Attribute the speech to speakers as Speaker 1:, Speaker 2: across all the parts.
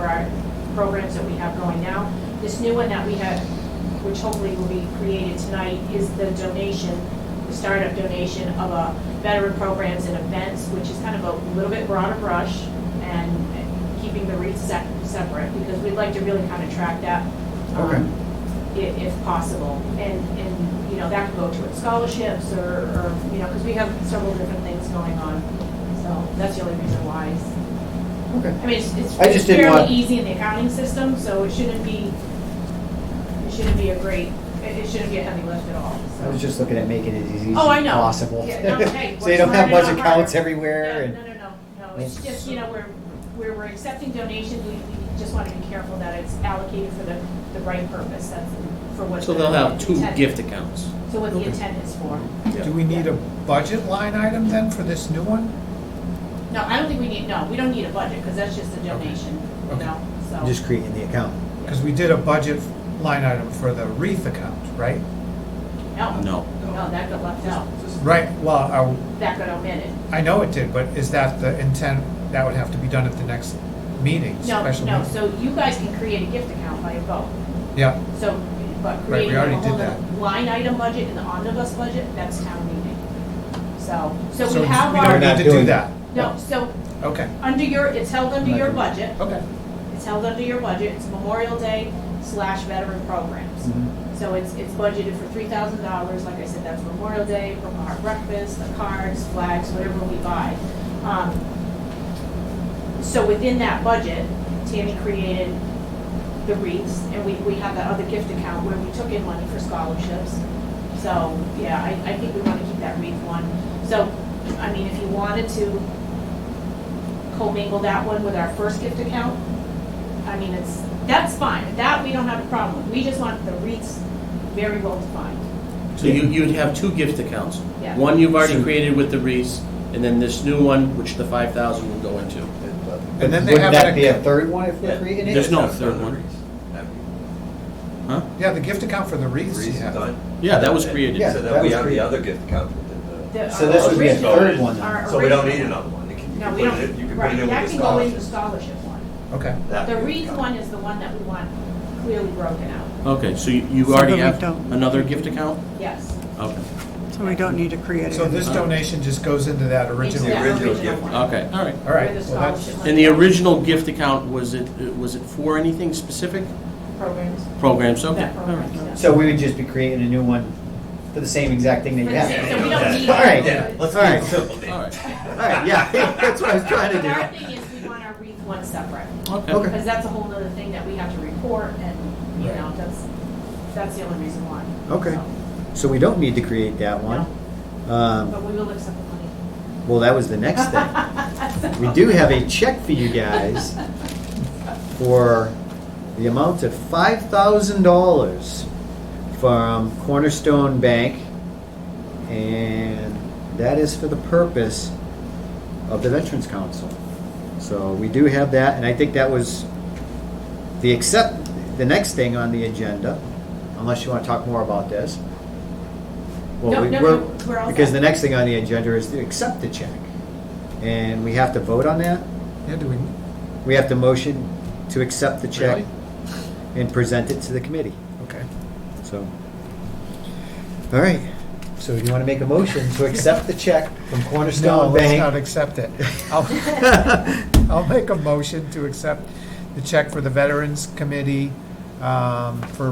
Speaker 1: our programs that we have going now. This new one that we have, which hopefully will be created tonight, is the donation, the startup donation of a veteran programs and events, which is kind of a little bit broader brush and keeping the REITs sep- separate, because we'd like to really kind of track that. um,
Speaker 2: Okay.
Speaker 1: i- if possible. And, and, you know, that could go towards scholarships or, or, you know, because we have several different things going on. So that's the only reason why. it's-
Speaker 2: Okay.
Speaker 1: I mean, it's, it's
Speaker 2: I just
Speaker 1: it's
Speaker 2: didn't want-
Speaker 1: fairly easy in the accounting system, so it shouldn't be, it shouldn't be a great, it it shouldn't be a heavy lift at all,
Speaker 2: I was
Speaker 1: so.
Speaker 2: just looking at making it as easy as
Speaker 1: Oh, I know.
Speaker 2: possible.
Speaker 1: Yeah, no, hey,
Speaker 2: So
Speaker 1: what's
Speaker 2: you don't have
Speaker 1: harder,
Speaker 2: a bunch of
Speaker 1: not
Speaker 2: counts
Speaker 1: harder.
Speaker 2: everywhere
Speaker 1: Yeah,
Speaker 2: and.
Speaker 1: No, no, no, no. It's just, you know, we're, we're, we're accepting donations. We, we just want to be careful that it's allocated for the, the right purpose. That's for what.
Speaker 3: So
Speaker 1: the
Speaker 3: they'll have two
Speaker 1: intent-
Speaker 3: gift accounts.
Speaker 1: So what the
Speaker 3: Okay.
Speaker 1: intent is for.
Speaker 3: Yeah.
Speaker 4: Do we need a budget line item then for this new one?
Speaker 1: No, I don't think we need, no, we don't need a budget, because that's just a donation, you
Speaker 4: Okay.
Speaker 1: know, so.
Speaker 2: Just creating the account.
Speaker 4: Because we did a budget line item for the wreath account, right?
Speaker 3: No.
Speaker 1: No, that got left out,
Speaker 4: Right, well,
Speaker 1: that got omitted.
Speaker 4: I, I know it did, but is that the intent, that would have to be done at the next meeting,
Speaker 1: No,
Speaker 4: special
Speaker 1: no,
Speaker 4: meeting?
Speaker 1: so you guys can create a gift account by a vote,
Speaker 4: Yeah,
Speaker 1: so, but
Speaker 4: Right, we
Speaker 1: creating a
Speaker 4: already
Speaker 1: whole
Speaker 4: did
Speaker 1: other line item budget and the omnibus budget, that's town meeting. So, so
Speaker 4: so
Speaker 1: we have
Speaker 2: We're
Speaker 4: don't
Speaker 1: our,
Speaker 2: not
Speaker 4: need to
Speaker 2: doing-
Speaker 4: do that.
Speaker 1: no, so,
Speaker 4: Okay,
Speaker 1: under your, it's held under
Speaker 2: Not
Speaker 1: your
Speaker 2: doing-
Speaker 1: budget,
Speaker 4: okay.
Speaker 1: it's held under your budget, it's Memorial Day slash veteran
Speaker 4: Mm-hmm.
Speaker 1: programs. So it's, it's budgeted for three thousand dollars, like I said, that's Memorial Day, from our breakfast, the cards, flags, whatever we buy. Um, So within that budget, Tammy created the wreaths, and we, we have that other gift account where we took in money for scholarships. So, yeah, I, I think we wanna keep that wreath one. So, I mean, if you wanted to commingle that one with our first gift account, I mean, it's, that's fine, that we don't have a problem with, we just want the REITs very well defined.
Speaker 3: So you, you'd have two gift accounts.
Speaker 1: Yeah.
Speaker 3: One you've already
Speaker 2: So-
Speaker 3: created with the Reese, and then this new one, which the five thousand will go into.
Speaker 4: And then they
Speaker 2: Wouldn't
Speaker 4: have
Speaker 2: that
Speaker 4: an
Speaker 2: be a
Speaker 4: account.
Speaker 2: third one if we're
Speaker 3: Yeah.
Speaker 2: creating it?
Speaker 3: There's no third one. Huh?
Speaker 4: Yeah, the gift account for the wreaths,
Speaker 5: Reason
Speaker 4: yeah.
Speaker 5: done.
Speaker 3: Yeah, that was created.
Speaker 2: Yeah,
Speaker 5: So
Speaker 2: that
Speaker 5: then we
Speaker 2: was
Speaker 5: have
Speaker 2: created.
Speaker 5: the other gift account within the,
Speaker 1: The-
Speaker 2: So this would be a
Speaker 1: our
Speaker 2: third one
Speaker 1: original-
Speaker 2: then.
Speaker 1: our
Speaker 5: so we don't need
Speaker 1: original-
Speaker 5: another one. You can- you
Speaker 1: No,
Speaker 5: can
Speaker 1: we
Speaker 5: put it in- You
Speaker 1: don't,
Speaker 5: can put it
Speaker 1: right,
Speaker 5: in
Speaker 1: that
Speaker 5: with the
Speaker 1: can go into
Speaker 5: scholarship.
Speaker 1: the scholarship one.
Speaker 4: Okay,
Speaker 5: That
Speaker 1: The
Speaker 5: gift
Speaker 1: REITs
Speaker 5: account.
Speaker 1: one is the one that we want clearly broken out,
Speaker 3: Okay, so you, you
Speaker 6: So
Speaker 3: already
Speaker 6: then we
Speaker 3: have
Speaker 6: don't-
Speaker 3: another gift account?
Speaker 1: yes.
Speaker 3: Okay,
Speaker 6: So we don't need to create
Speaker 4: so
Speaker 6: it.
Speaker 4: this donation just goes into that original,
Speaker 1: Into that
Speaker 5: original gift.
Speaker 1: one.
Speaker 3: okay, Uh, all right.
Speaker 4: all right.
Speaker 1: Where the
Speaker 4: well, that's-
Speaker 1: scholarship
Speaker 3: And the
Speaker 1: money
Speaker 3: original gift account, was it, was it for anything specific?
Speaker 1: Programs.
Speaker 3: Programs, okay.
Speaker 1: That
Speaker 3: all right.
Speaker 1: programs, yeah.
Speaker 2: So we would just be creating a new one for the same exact thing that you
Speaker 1: For the same- So
Speaker 2: have.
Speaker 1: we don't need.
Speaker 2: All right.
Speaker 5: Yeah,
Speaker 1: The
Speaker 5: let's
Speaker 2: All right.
Speaker 5: keep it simple then.
Speaker 3: All right,
Speaker 2: Alright, yeah, that's what I was trying to
Speaker 1: Our
Speaker 2: do.
Speaker 1: thing is, we want our REIT one separate,
Speaker 3: okay.
Speaker 2: Okay.
Speaker 1: because that's a whole other thing that we have to report, and, you
Speaker 4: Right.
Speaker 1: know, that's, that's the only reason why.
Speaker 2: Okay.
Speaker 1: So,
Speaker 2: So we don't need to create that one. Um,
Speaker 1: But we will accept the money.
Speaker 2: well, that was the next thing. We do have a check for you guys for the amount of five thousand dollars from Cornerstone Bank. And that is for the purpose of the Veterans Council. So we do have that, and I think that was the accept, the next thing on the agenda, unless you want to talk more about this. Well,
Speaker 1: No,
Speaker 2: we-
Speaker 1: no,
Speaker 2: we're-
Speaker 1: no, we're all
Speaker 2: Because
Speaker 1: set.
Speaker 2: the next thing on the agenda is to accept the check. And we have to vote on that?
Speaker 4: Yeah, do we,
Speaker 2: We have to motion to accept the check
Speaker 4: Really?
Speaker 2: and present it to the committee,
Speaker 4: okay.
Speaker 2: so. All right, so you want to make a motion to accept the check from
Speaker 4: No,
Speaker 2: Cornerstone
Speaker 4: let's not
Speaker 2: Bank?
Speaker 4: accept it. I'll- I'll make a motion to accept the check for the Veterans Committee um, for.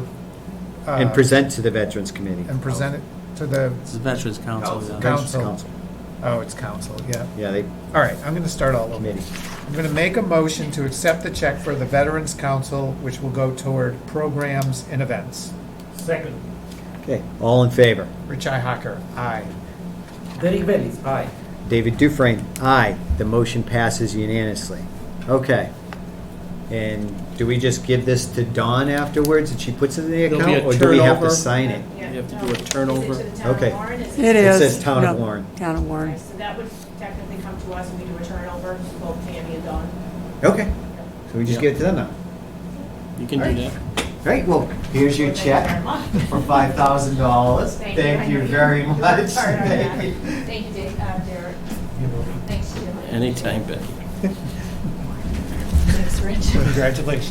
Speaker 4: uh, um,
Speaker 2: And present to the Veterans Committee.
Speaker 4: And present it to the,
Speaker 3: It's the Veterans Council. yeah.
Speaker 5: Council.
Speaker 2: Veterans Council.
Speaker 4: oh, it's council, yeah.
Speaker 2: Yeah, they,
Speaker 4: All right, I'm going to start all over.
Speaker 2: committee.
Speaker 4: I'm going to make a motion to accept the check for the Veterans Council, which will go toward programs and events.
Speaker 7: Second.
Speaker 2: Okay, all in favor?
Speaker 4: Rich Ihacker, aye.
Speaker 7: Derek Bellis, aye.
Speaker 2: David Dufrain, aye. The motion passes unanimously. Okay. And do we just give this to Dawn afterwards and she puts it in the
Speaker 3: There'll be
Speaker 2: account?
Speaker 3: a
Speaker 2: Or do we have to
Speaker 3: turnover.
Speaker 2: sign it?
Speaker 1: Yeah,
Speaker 3: You have to
Speaker 1: no.
Speaker 3: do a
Speaker 1: Is it to
Speaker 3: turnover.
Speaker 1: the town of
Speaker 2: Okay.
Speaker 1: Warren? Is
Speaker 6: It
Speaker 2: It
Speaker 6: is.
Speaker 2: says Town of
Speaker 6: no,
Speaker 2: Warren.
Speaker 6: Town of Warren.
Speaker 1: So that would technically come to us, and we do a turnover, both Tammy and Dawn.
Speaker 2: Okay, so we just
Speaker 3: Yeah.
Speaker 2: give it to them now.
Speaker 3: You can do that.
Speaker 2: Great, well, here's your check for five thousand dollars.
Speaker 1: Thank you. I
Speaker 2: Thank you
Speaker 1: know you
Speaker 2: very
Speaker 1: worked
Speaker 2: much.
Speaker 1: hard on that.
Speaker 2: Thank you.
Speaker 1: Thank you, Dave, uh, Derek. Thanks, Jim.
Speaker 3: Anytime, Becky.
Speaker 1: Thanks, Rich.
Speaker 4: Congratulations.